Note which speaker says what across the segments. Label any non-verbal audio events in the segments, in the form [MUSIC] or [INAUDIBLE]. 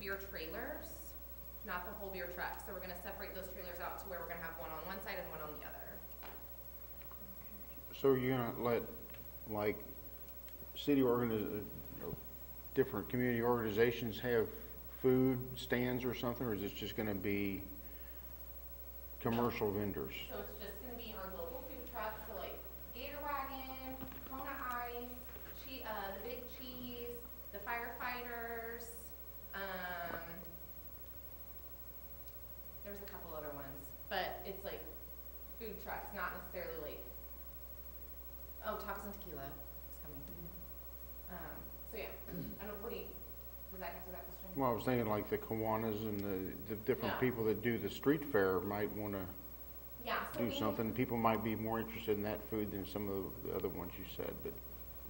Speaker 1: beer trailers, not the whole beer truck. So we're gonna separate those trailers out to where we're gonna have one on one side and one on the other.
Speaker 2: So you're gonna let, like, city organiz, or different community organizations have food stands or something, or is this just gonna be commercial vendors?
Speaker 1: So it's just gonna be our local food trucks, so like Gator Wagon, Kona Ice, Che- uh, the Big Cheese, the firefighters, um, there's a couple other ones, but it's like food trucks, not necessarily like, oh, tacos and tequila is coming. Um, so yeah, I don't, what do you, does that answer that question?
Speaker 2: Well, I was thinking like the Kiwanis and the, the different
Speaker 1: Yeah.
Speaker 2: people that do the street fair might wanna
Speaker 1: Yeah, so
Speaker 2: do
Speaker 1: we-
Speaker 2: something. People might be more interested in that food than some of the other ones you said, but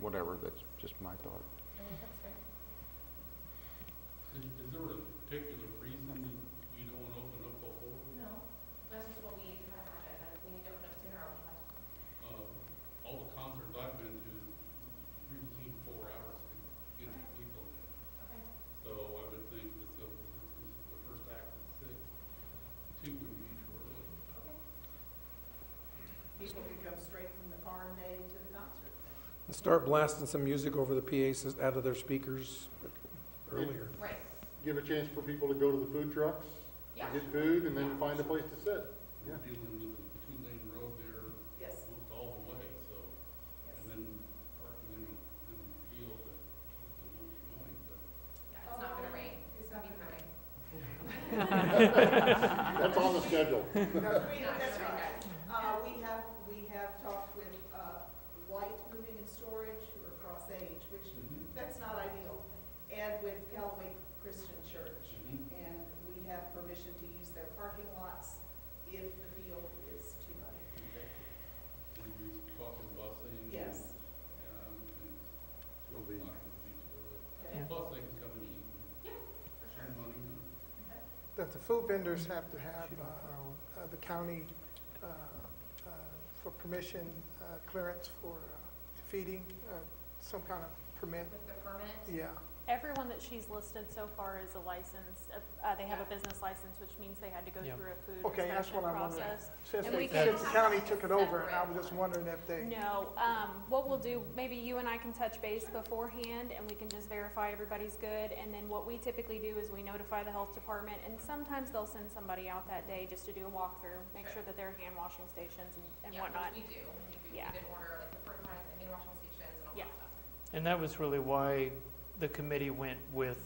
Speaker 2: whatever, that's just my thought.
Speaker 1: I think that's fair.
Speaker 3: Is, is there a particular reason that you don't wanna open up a whole,
Speaker 1: No, that's just what we need to have on our agenda, we need to open up sooner or later.
Speaker 3: uh, all the concerts I've been to, usually four hours to get the people there.
Speaker 1: Okay.
Speaker 3: So I would think that the, since this is the first act is six, two would be too early.
Speaker 4: People could come straight from the farm day to the concert.
Speaker 5: And start blasting some music over the PA sys- out of their speakers earlier.
Speaker 1: Right,
Speaker 6: give a chance for people to go to the food trucks,
Speaker 1: yeah,
Speaker 6: get food, and then find a place to sit. Yeah.
Speaker 3: We're dealing with a two-lane road there
Speaker 4: Yes,
Speaker 3: almost all the way, so, and
Speaker 4: yes.
Speaker 3: then parking in, a- in a field that, that won't be mowing, but
Speaker 1: yeah, it's not gonna rain,
Speaker 4: It's
Speaker 1: it's
Speaker 4: not
Speaker 1: gonna be
Speaker 4: gonna
Speaker 1: pouring.
Speaker 6: [LAUGHS]
Speaker 4: rain.
Speaker 6: That's on
Speaker 2: [LAUGHS]
Speaker 6: the schedule.
Speaker 4: We- That's right. Uh, we have, we have talked with, uh, Light Moving and Storage, who are Cross Age, which, that's not ideal. And with Callaway Christian Church. And we have permission to use their parking lots if the field is too muddy.
Speaker 3: And we talking busing. and-
Speaker 4: Yes.
Speaker 3: Um, and two
Speaker 6: Will
Speaker 3: o'clock
Speaker 6: be-
Speaker 3: would be too early.
Speaker 4: Okay.
Speaker 3: Plus, they can come and eat.
Speaker 1: Yeah,
Speaker 3: Spend money on it.
Speaker 7: that the food vendors have to have uh, uh, the county uh, uh, for permission, uh, clearance for uh, feeding, uh, some kind of permit,
Speaker 1: With the permit,
Speaker 7: yeah.
Speaker 8: Everyone that she's listed so far is a licensed, uh, uh, they have a business license, which means they had to go
Speaker 5: Yeah.
Speaker 8: through a food
Speaker 7: Okay, that's
Speaker 8: inspection
Speaker 7: what I'm wondering.
Speaker 8: process.
Speaker 7: Since
Speaker 8: And we
Speaker 7: they-
Speaker 8: can
Speaker 7: since the
Speaker 1: have
Speaker 7: county
Speaker 1: a
Speaker 7: took it over, and I
Speaker 1: separate
Speaker 7: was just
Speaker 1: one.
Speaker 7: wondering if they,
Speaker 8: No, um, what we'll do, maybe you and I can touch base beforehand and we can just verify everybody's good. And then what we typically do is we notify the health department and sometimes they'll send somebody out that day just to do a walkthrough, make
Speaker 1: Sure.
Speaker 8: sure that there are hand washing stations and, and
Speaker 1: yeah,
Speaker 8: whatnot.
Speaker 1: which we do, we do, we
Speaker 8: Yeah.
Speaker 1: did order like the fertilizer, and hand washing stations and all
Speaker 8: Yeah.
Speaker 1: that stuff.
Speaker 9: And that was really why the committee went with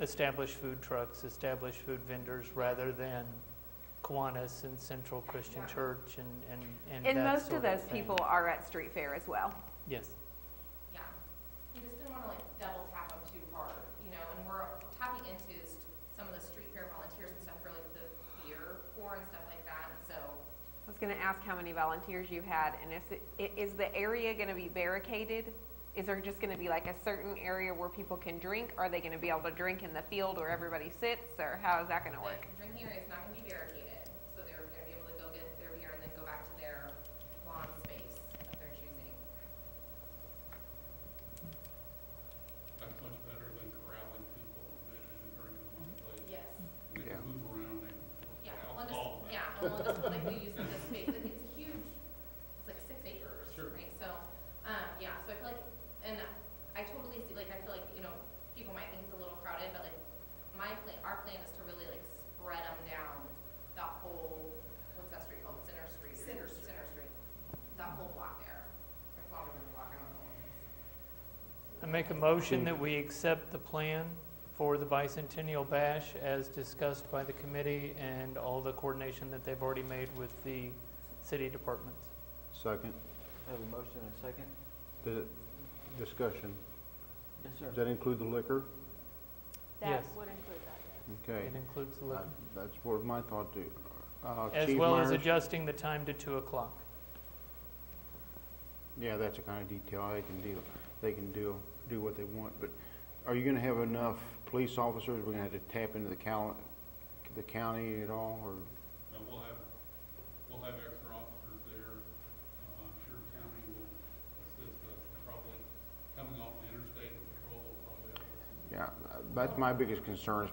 Speaker 9: established food trucks, established food vendors, rather than Kiwanis and Central Christian
Speaker 1: Yeah.
Speaker 9: Church and, and, and
Speaker 10: And
Speaker 9: that
Speaker 10: most
Speaker 9: sort
Speaker 10: of those
Speaker 9: thing.
Speaker 10: people are at street fair as well.
Speaker 9: Yes.
Speaker 1: Yeah, we just didn't wanna like double tap them too hard, you know, and we're tapping into s- some of the street fair volunteers and stuff for like the beer pour and stuff like that, and so,
Speaker 10: I was gonna ask how many volunteers you had, and if, it- i- is the area gonna be barricaded? Is there just gonna be like a certain area where people can drink? Are they gonna be able to drink in the field where everybody sits, or how is that gonna work?
Speaker 1: the drinking area is not gonna be barricaded, so they're gonna be able to go get their beer and then go back to their lawn space of their choosing.
Speaker 3: That's much better than corralling people and making them drink in one place.
Speaker 1: Yes.
Speaker 3: And they
Speaker 2: Yeah.
Speaker 3: can move around, they can.
Speaker 1: Yeah,
Speaker 3: I'll
Speaker 1: on this,
Speaker 3: call
Speaker 1: yeah,
Speaker 3: that.
Speaker 1: on this, like, we use this space, like, it's huge, it's like six acres,
Speaker 3: Sure.
Speaker 1: right? So, um, yeah, so I feel like, and I totally see, like, I feel like, you know, people might think it's a little crowded, but like, my plan, our plan is to really like spread them down that whole, what's that street called, Center Street? or-
Speaker 4: Center Street.
Speaker 1: Center Street, that whole block there, or longer than the block, I don't know.
Speaker 9: I make a motion that we accept the plan for the bicentennial bash as discussed by the committee and all the coordination that they've already made with the city departments.
Speaker 2: Second,
Speaker 11: I have a motion and a second.
Speaker 2: the discussion,
Speaker 11: Yes,
Speaker 2: does that include the liquor?
Speaker 8: That
Speaker 9: Yes.
Speaker 8: would include that.
Speaker 2: Okay.
Speaker 9: It includes the
Speaker 2: Uh,
Speaker 9: liquor,
Speaker 2: That's what my thought too. Uh,
Speaker 9: as
Speaker 2: Chief
Speaker 9: well as
Speaker 2: Myers-
Speaker 9: adjusting the time to two o'clock.
Speaker 2: Yeah, that's the kind of detail they can deal, they can do, do what they want, but are you gonna have enough police officers? We're gonna have to tap into the cal, the county at all, or?
Speaker 3: Now, we'll have, we'll have extra officers there. Uh, I'm sure county will assist us, probably coming off the interstate patrol, will probably help us.
Speaker 2: Yeah, that's uh, my biggest concern is